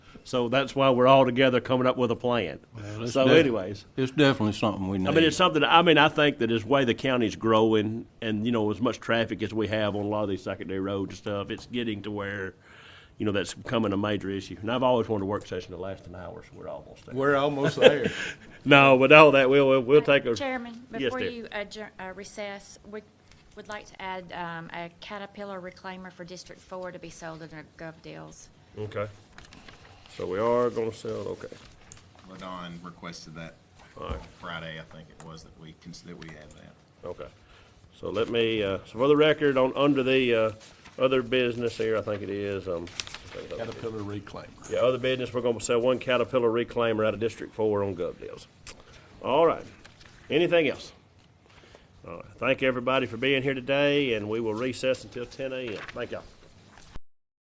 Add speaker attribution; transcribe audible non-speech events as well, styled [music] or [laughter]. Speaker 1: So that's why we're all together coming up with a plan.
Speaker 2: it's
Speaker 1: So
Speaker 2: def-
Speaker 1: anyways.
Speaker 2: It's definitely something we need.
Speaker 1: I mean, it's something. I mean, I think that as way the county's growing, and you know, as much traffic as we have on a lot of these secondary roads and stuff, it's getting to where, you know, that's becoming a major issue. And I've always wanted a work session to last an hour, so we're almost there.
Speaker 3: We're almost there.
Speaker 1: [laughs] No, but all that we'll we'll, we'll take a
Speaker 4: Chairman,
Speaker 1: Yes,
Speaker 4: before
Speaker 1: dear.
Speaker 4: you adjourn- uh, recess, we would like to add um, a Caterpillar reclaimer for District Four to be sold under gov deals.
Speaker 1: Okay. So we are going to sell. Okay.
Speaker 5: Ladon requested that
Speaker 1: All right.
Speaker 5: Friday, I think it was, that we, cons- that we had that.
Speaker 1: Okay. So let me, uh, so for the record, on, under the, uh, other business here, I think it is, um. I think it's other business.
Speaker 2: Caterpillar reclaimer.
Speaker 1: Yeah, other business, we're gonna sell one Caterpillar reclaimer out of District Four on Gov Deals. All right. Anything else? All right. Thank everybody for being here today, and we will recess until ten AM. Thank y'all.